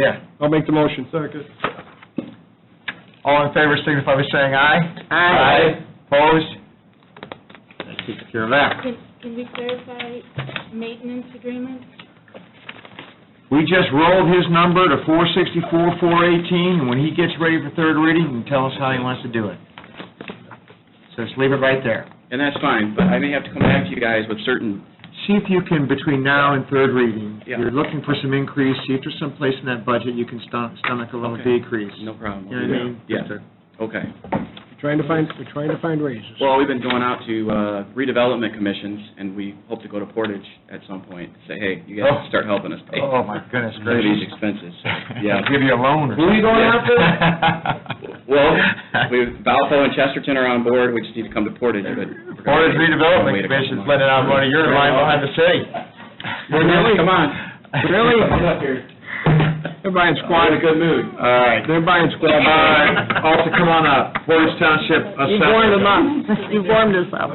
Yeah. I'll make the motion. Second. All in favor signify by saying aye. Aye. Opposed? That takes care of that. Can, can we clarify maintenance agreement? We just rolled his number to four sixty-four, four eighteen, and when he gets ready for third reading, he can tell us how he wants to do it. So just leave it right there. And that's fine, but I may have to come back to you guys with certain, See if you can, between now and third reading, if Yeah. you're looking for some increase, see if there's some place in that budget you can stom- stomach a little Okay. decrease. no problem. You know what I mean? Yeah, okay. Trying to find, we're trying to find raises. Well, we've been going out to uh redevelopment commissions, and we hope to go to Portage at some point, say, hey, you guys Oh. start helping us pay Oh, my goodness some of these gracious. expenses. Yeah. Give you a loan or Who are you going after? Well, we, Valpo and Chesterton are on board, we just need to come to Portage, but. we're gonna Portage wait- Redevelopment wait a couple Commission's months. letting out money, you're in line behind the city. Really? Come on. Really? Come up here. They're buying We're squad, in a good mood. All right. they're buying All squad. right, Alter, come on up, Portage Township You've Assessor. warmed them up. You've warmed us up.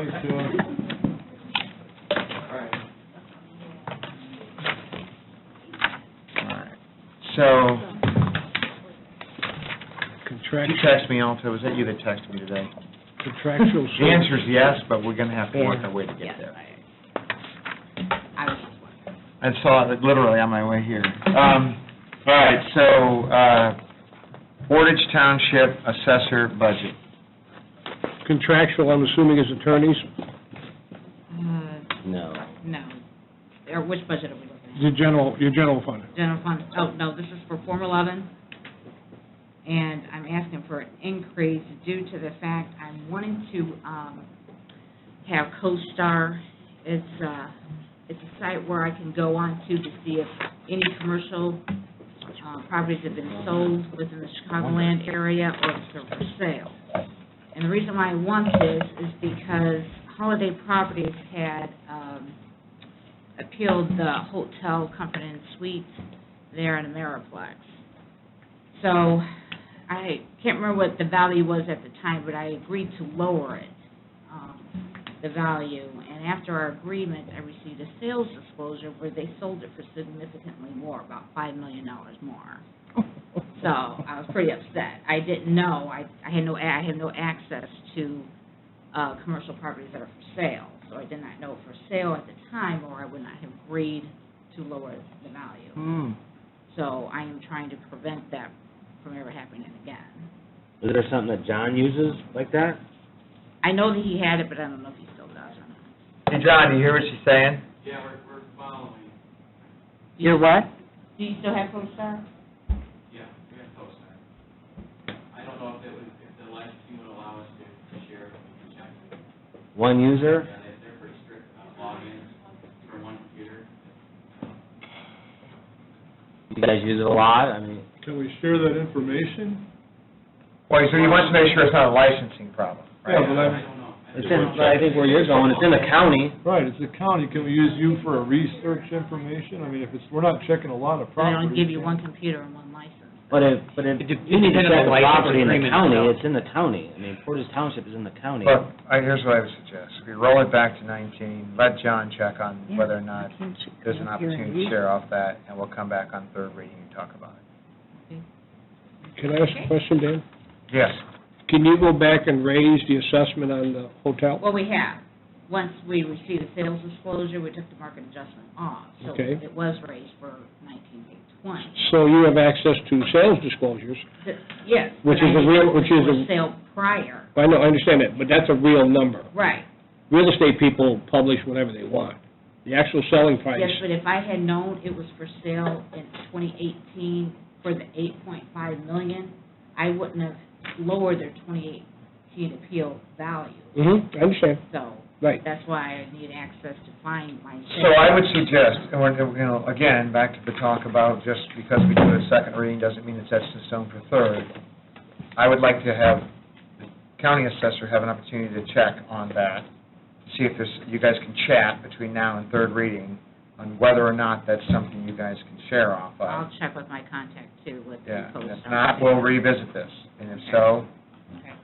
All right. So, Contract- you text me, Alter, was that you that texted me today? Contractual The service. answer's yes, but we're gonna have to work our way to get there. I saw it literally on my way here. Um, all right, so, uh, Portage Township Assessor Budget. Contractual, I'm assuming is attorneys. Uh, No. no. Or which budget are we looking The general, your general fund. at? General fund, oh, no, this is for Form 11, and I'm asking for an increase due to the fact I'm wanting to um, have CoStar. It's, uh, it's a site where I can go on to to see if any commercial uh, properties have been sold within the Chicagoland area or if they're for sale. And the reason why I want this is because Holiday Properties had um, appealed the hotel company and suites there in Ameriplex. So I can't remember what the value was at the time, but I agreed to lower it, um, the value. And after our agreement, I received a sales disclosure where they sold it for significantly more, about $5 million more. So I was pretty upset. I didn't know, I, I had no, a- I have no access to, uh, commercial properties that are for sale. So I did not know for sale at the time, or I would not have agreed to lower the value. Hmm. So I am trying to prevent that from ever happening again. Is there something that John uses like that? I know that he had it, but I don't know if he still does or not. Hey, John, do you hear what she's saying? You're what? Do you still have CoStar? Yeah, we have co-sign. I don't know if it would, if the licensing would allow us to to share, we can check. One user? Yeah, they- they're pretty strict about logins for one computer. You guys use it a lot? I mean, Can we share that information? Well, so he wants to make sure it's not a licensing problem, Yeah, right? but I I, don't know. I it's don't in- I think where you're going, it's in the county. right, it's the county, can we use you for a research information? I mean, if it's, we're not checking a lot of They properties. don't give you one computer and one license. But if, but if It you depends need on to check the the license property in the agreement county, itself. it's in the county. I mean, Portage Township is in the county. But I, here's what I would suggest, we roll it back to nineteen, let John check on whether or not there's an opportunity to share off that, and we'll come back on third reading and talk about it. Can I ask a question, Dan? Yes. Can you go back and raise the assessment on the hotel? Well, we have. Once we received the sales disclosure, we took the market adjustment off. Okay. So it was raised for nineteen eight twenty. So you have access to sales disclosures. Yes. Which but is a I didn't real- know which it is a- was Sale prior, I know, I understand that, but that's a real number. right. Real estate people publish whatever they want. The actual selling price, Yes, but if I had known it was for sale in twenty eighteen for the eight point five million, I wouldn't have lowered their twenty eighteen appeal value. mm-hmm, I understand, So right. that's why I need access to find my sale. So I would suggest, and we're, you know, again, back to the talk about just because we do a second reading doesn't mean it's set in stone for third. I would like to have the county assessor have an opportunity to check on that, see if there's, you guys can chat between now and third reading on whether or not that's something you guys can share off of. I'll check with my contact too, with the Yeah, and post. if not, we'll revisit this, and if so, Okay. know.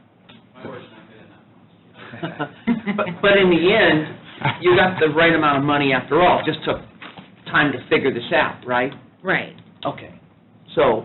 My word's not good enough. But, but in the end, you got the right amount of money after all, just took time to figure this out, right? Right. Okay. So,